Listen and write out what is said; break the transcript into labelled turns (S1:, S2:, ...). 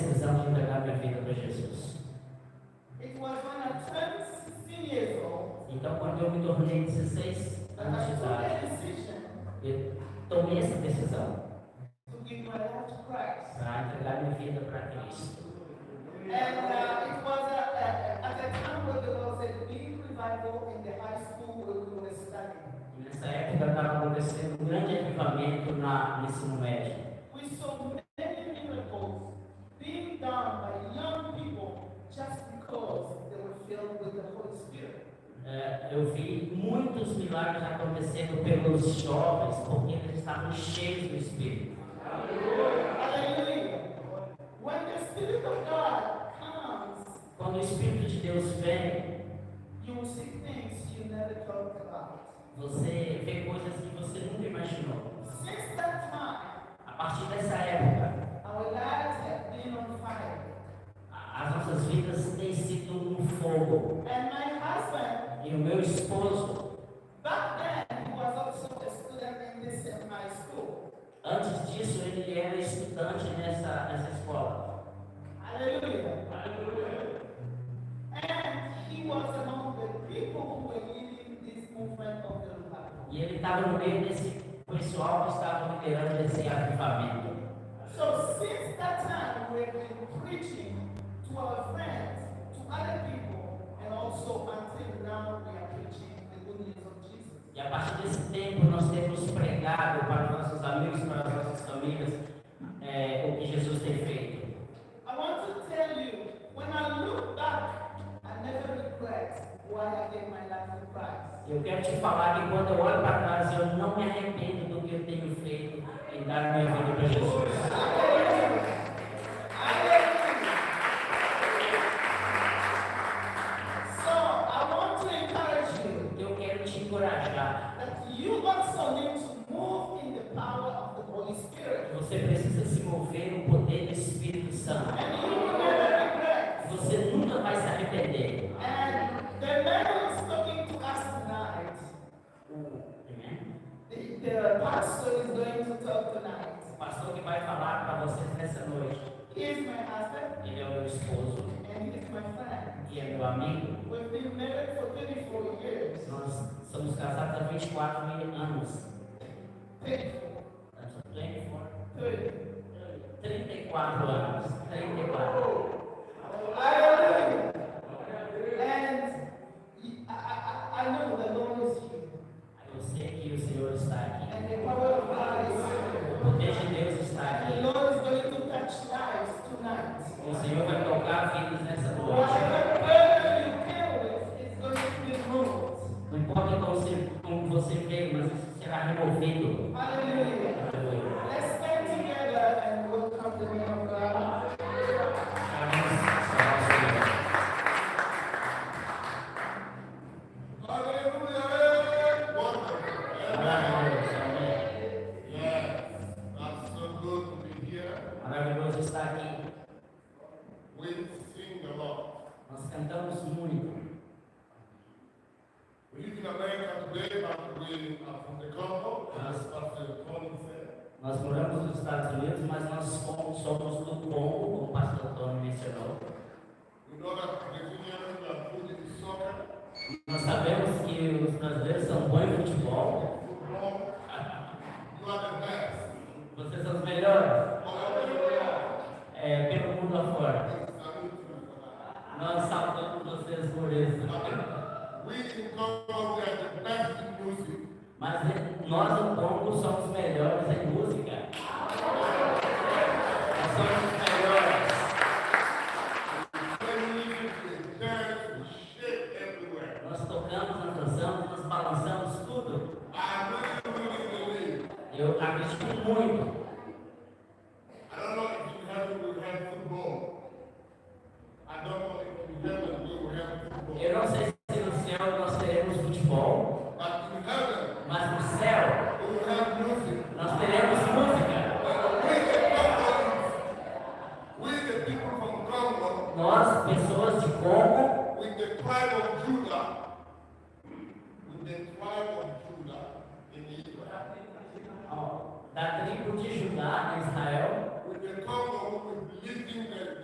S1: Então, quando eu me tornei 16
S2: Mas
S1: anos de
S2: nós
S1: idade,
S2: took that decision
S1: eu tomei essa decisão
S2: to give my life to Christ.
S1: para entregar minha vida para Cristo.
S2: And uh, it was at, at, at a time when there was a big revival in the high school where we were studying.
S1: E Nessa época estava acontecendo um grande avivamento na, no ensino médio.
S2: We saw many miracles being done by young people just because they were filled with the Holy Spirit.
S1: É, eu vi muitos milagres acontecendo pelos jovens, porque eles estavam cheios do Espírito.
S2: Hallelujah. When the Spirit of God comes,
S1: Quando o Espírito de Deus vem,
S2: you will see things you never thought about.
S1: você vê coisas que você nunca imaginou.
S2: Since that time,
S1: A partir dessa época,
S2: our lives have been on fire.
S1: a- as nossas vidas têm sido um fogo.
S2: And my husband,
S1: E o meu esposo,
S2: back then, he was also a student in this in my school.
S1: antes disso, ele era estudante nessa, nessa escola.
S2: Hallelujah. And he was among the people who were leading this movement of the revival.
S1: E ele estava no meio desse pessoal que estava liderando esse avivamento.
S2: So since that time, we've been preaching to our friends, to other people, and also until now, we are preaching the good news of Jesus.
S1: E a partir desse tempo, nós temos pregado para os nossos amigos, para as nossas famílias, é, o que Jesus tem feito.
S2: I want to tell you, when I look back, I never regret why I gave my life to Christ.
S1: Eu quero te falar que quando eu olho para trás, eu não me arrependo do que eu tenho feito em dar minha vida para Jesus.
S2: So I want to encourage you
S1: Eu quero te encorajar.
S2: that you also need to move in the power of the Holy Spirit.
S1: Você precisa se mover no poder do Espírito Santo.
S2: And you will never regret.
S1: Você nunca vai se arrepender.
S2: And the man who is talking to us tonight,
S1: Amém?
S2: the, the pastor is going to talk tonight.
S1: O pastor que vai falar para vocês nessa noite,
S2: He is my husband
S1: ele é o meu esposo
S2: and he is my friend.
S1: e é meu amigo.
S2: We've been married for 24 years.
S1: Nós somos casados há 24 mil anos.
S2: 34,
S1: 34
S2: 30.
S1: 34 anos. 34.
S2: Hallelujah. And I, I, I I know the Lord is here.
S1: Eu sei que o Senhor está aqui.
S2: And the power of God is
S1: O
S2: here.
S1: poder de Deus está
S2: And
S1: aqui.
S2: the Lord is going to touch lives tonight.
S1: O Senhor vai tocar vidas nessa noite.
S2: Whatever burden you deal with is going to be moved.
S1: Não importa como você, como você veio, mas isso será removido.
S2: Hallelujah.
S1: Aleluia.
S2: Let's stand together and welcome the name of God.
S3: Hallelujah. Wonderful.
S1: Amém.
S3: Yes. I'm so good to be here.
S1: Maravilhoso estar aqui.
S3: We sing a lot.
S1: Nós cantamos muito.
S3: We live in America today, but we are from the Congo. As Pastor Colin said,
S1: Nós moramos nos Estados Unidos, mas nós somos, somos do Congo, como o pastor Antônio mencionou.
S3: we know that Brazilians are good in soccer,
S1: Nós sabemos que os brasileiros são bons em futebol.
S3: football. You are the best.
S1: Vocês são os melhores
S3: Hallelujah.
S1: é, pelo mundo afora.
S3: I salute you for that.
S1: Nós saudamos vocês por isso.
S3: We in Congo, we are the best in music.
S1: Mas é, nós, do Congo, somos os melhores em música. Nós somos os melhores.
S3: When we dance, we shake everywhere.
S1: Nós tocamos, nós dançamos, nós balançamos tudo.
S3: I really, really believe.
S1: Eu acredito muito.
S3: I don't know if in heaven we will have football. I don't know if in heaven we will have
S1: Eu
S3: football.
S1: não sei se no céu nós teremos futebol,
S3: But in heaven
S1: mas no céu
S3: we will have music.
S1: nós teremos música.
S3: But we the Congolans, we the people from Congo,
S1: Nós, pessoas de Congo,
S3: with the tribe of Judah, with the tribe of Judah in Israel,
S1: ó, da tribo de Judá, em Israel,
S3: with the Congo who is leading the